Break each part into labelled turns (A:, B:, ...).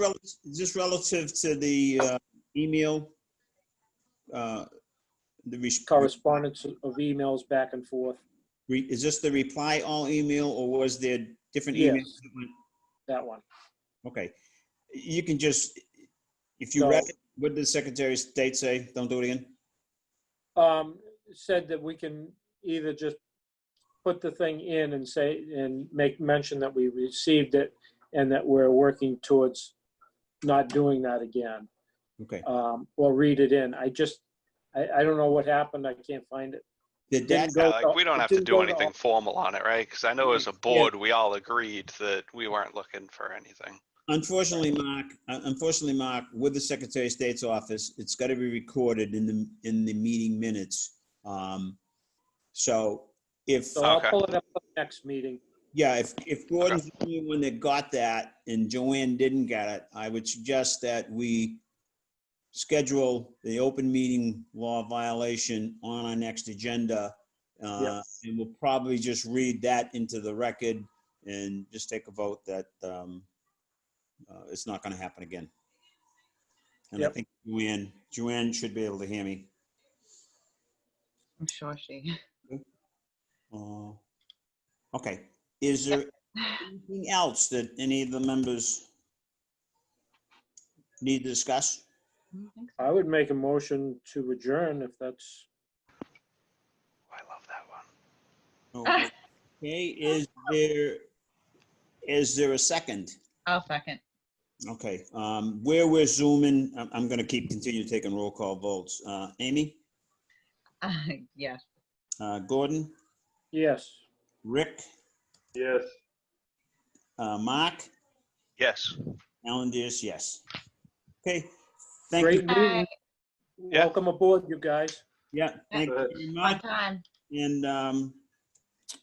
A: rel- just relative to the uh, email, uh, the, res-
B: correspondence of emails back and forth.
A: re- is this the reply all email or was there different
B: Yes.
A: emails? that went-
B: That one.
A: Okay, you can just, if you
B: No.
A: read, it, what did the Secretary of State say? Don't do it again?
B: Um, said that we can either just put the thing in and say, and make mention that we received it and that we're working towards not doing that again,
A: Okay.
B: um, or read it in. I just, I, I don't know what happened. I can't find it.
A: Did
B: Didn't
A: that,
B: go
C: Yeah, like,
B: to-
C: we don't
B: it
C: have to
B: didn't
C: do
B: go to
C: anything formal on it, right? Because I know as a board, we all agreed that we weren't looking for anything.
A: unfortunately, Mark, un- unfortunately, Mark, with the Secretary of State's office, it's got to be recorded in the, in the meeting minutes. Um, So if.
B: So I'll
C: Okay.
B: pull it up at the next meeting.
A: Yeah, if, if Gordon's the only one that got that and Joanne didn't get it, I would suggest that we schedule the open meeting law violation on our next agenda. Uh, And we'll probably just read that into the record and just take a vote that um, uh, it's not going to happen again. And I
B: Yep.
A: think Joanne, Joanne should be able to hear me.
D: I'm sure she.
A: Uh, Okay, is there anything else that any of the members need to discuss?
D: Mm, thanks.
B: I would make a motion to adjourn if that's,
C: Oh, I love that one.
A: Okay, is there, is there a second?
D: I'll second.
A: Okay, um, where we're zooming, I'm, I'm gonna keep, continue taking roll call votes. Uh, Amy,
D: Yes.
A: uh, Gordon,
B: yes.
A: Rick,
E: Yes.
A: uh, Mark,
C: Yes.
A: Alan Diaz, yes. Okay, thank
B: Great
A: you.
B: meeting.
C: Yeah.
B: Welcome aboard, you guys.
A: Yeah, thank you very much.
D: time.
A: And, um,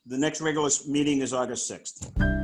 A: the next regular s- meeting is August 6th.